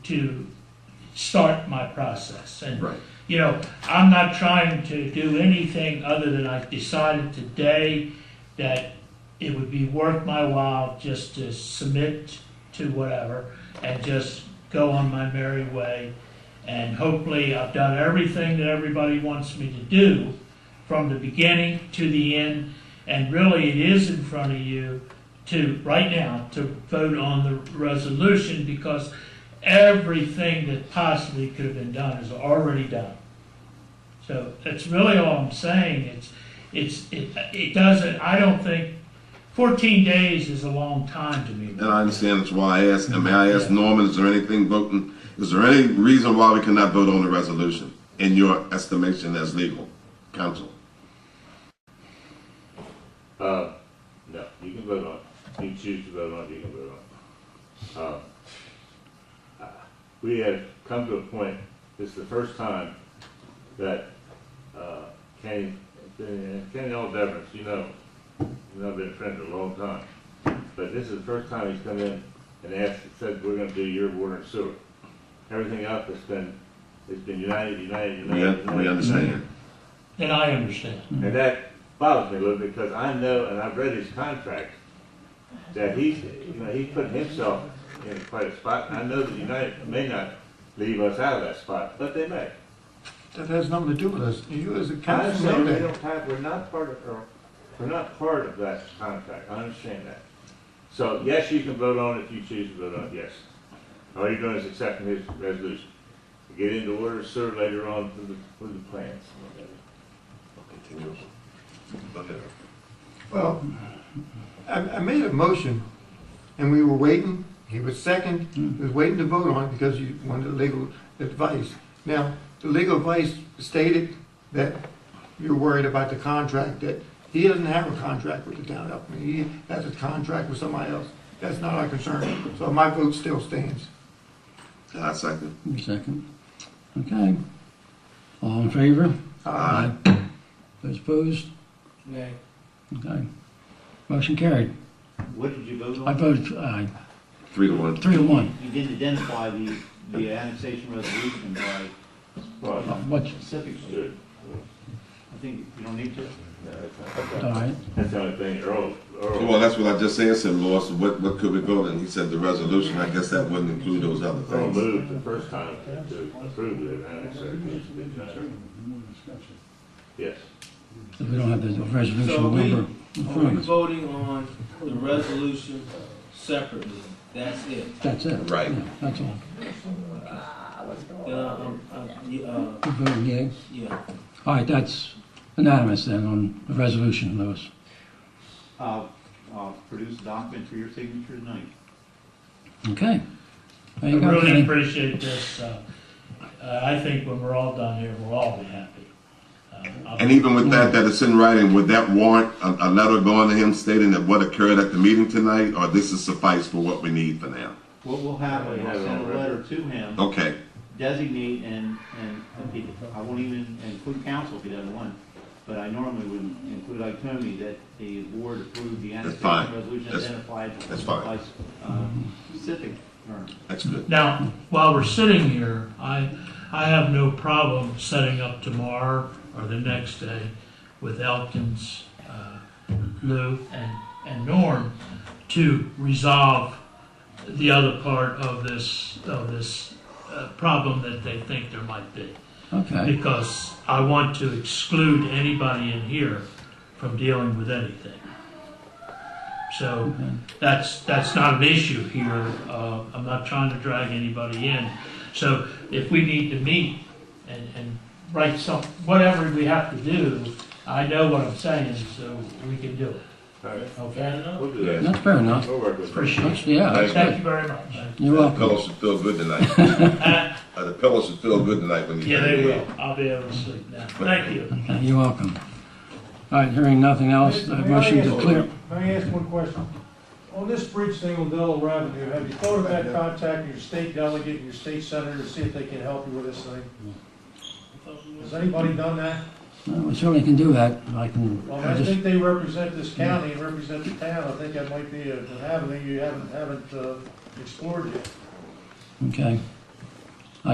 to start my process. And, Right. you know, I'm not trying to do anything other than I decided today that it would be worth my while just to submit to whatever and just go on my merry way. And hopefully I've done everything that everybody wants me to do from the beginning to the end. And really, it is in front of you to, right now, to vote on the resolution because everything that possibly could have been done is already done. So that's really all I'm saying. It's, it's, it, it doesn't, I don't think, fourteen days is a long time to me. And I understand that's why I asked, and may I ask Norman, is there anything voting, is there any reason why we cannot vote on the resolution in your estimation as legal counsel? Uh, no, you can vote on it. You choose to vote on it, you can vote on it. Um, uh, We have come to a point, this is the first time that, uh, Kenny, Kenny All Devens, you know, you know, I've been a friend for a long time. But this is the first time he's come in and asked, said, we're gonna do your water and sewer. Everything else has been, it's been united, united, Yeah, united. we united. understand. And I understand. And that bothers me a little because I know, and I've read his contract, that he's, you know, he's put himself in quite a spot. And I know that United may not leave us out of that spot, but they may. That has nothing to do with us. You as a I council understand we know that. don't have, we're not part of, or, we're not part of that contract. I understand that. So yes, you can vote on it if you choose to vote on it, yes. All you're doing is accepting his resolution. Get into order, sir, later on with the, with the plans. Well, I, I made a motion and we were waiting, he was second, Hmm. he was waiting to vote on it because you wanted legal advice. Now, the legal advice stated that you're worried about the contract, that he doesn't have a contract with the town of Upton. He has a contract with somebody else. That's not our concern. So my vote still stands. And I second. Give me a Second. Okay. All in favor? Aye. Those opposed? Nay. Okay. Motion carried. What did you vote I on? voted aye. Three to one. Three to one. You didn't identify the, the annexation resolution by Well, What, specifics. good. I think you don't need to. all right. That's the only thing, Earl, Earl. Well, that's what I just said, said Law, so what, what could we vote? And he said the resolution, I guess that wouldn't include those other They things. moved the first time to approve the annexation. Yes. So we don't have the So resolution we- number. in Are we front of us. voting on the resolution separately? That's it. That's it. Right. Yeah, That's all. Then Uh, I'm, I'm, you, uh, You voted yea. yeah. All right, that's unanimous then on the resolution, Lewis. I'll, I'll uh, produce a document for your signature tonight. Okay. There I you go, really Kenny. appreciate this. Uh, uh, I think when we're all done here, we'll all be happy. Uh, I'll- And even with that, that it's in writing, would that warrant a, a letter going to him stating that what occurred at the meeting tonight, or this is suffice for what we need for now? What we'll have, Yeah, we have I'll it send a already. letter to him, Okay, designate and, and, I won't even include council if he doesn't want. But I normally would include like Tony, that the board approved the fine. annexation resolution That's- identified that's fine. by, uh, specific terms. that's good. Now, while we're sitting here, I, I have no problem setting up tomorrow or the next day with Elkins, uh, Lou, and, and Norm to resolve the other part of this, of this uh, problem that they think there might be. Okay. Because I want to exclude anybody in here from dealing with anything. So that's, that's not an issue here. Uh, I'm not trying to drag anybody in. So if we need to meet and, and write some, whatever we have to do, I know what I'm saying, so we can do it. All right, Okay? we'll do that. That's fair enough. We'll work with it. Appreciate That's, it. yeah, that's Thank good. you very much. You're The welcome. pillows should feel good Uh, tonight. Uh, the pillows should feel good tonight when you. Yeah, hear they me. will. I'll be able to sleep now. Thank you. You're welcome. All right, hearing nothing else, the May I motion to ask- clear. May I ask one question? On this bridge thing on Delaware Avenue, have you thought about contacting your state delegate and your state senator to see if they can help you with this thing? Has anybody done that? Well, We certainly can do that. I can, Well, I I just, think they represent this county and represent the town. I think that might be an avenue you haven't, haven't uh, explored yet. okay.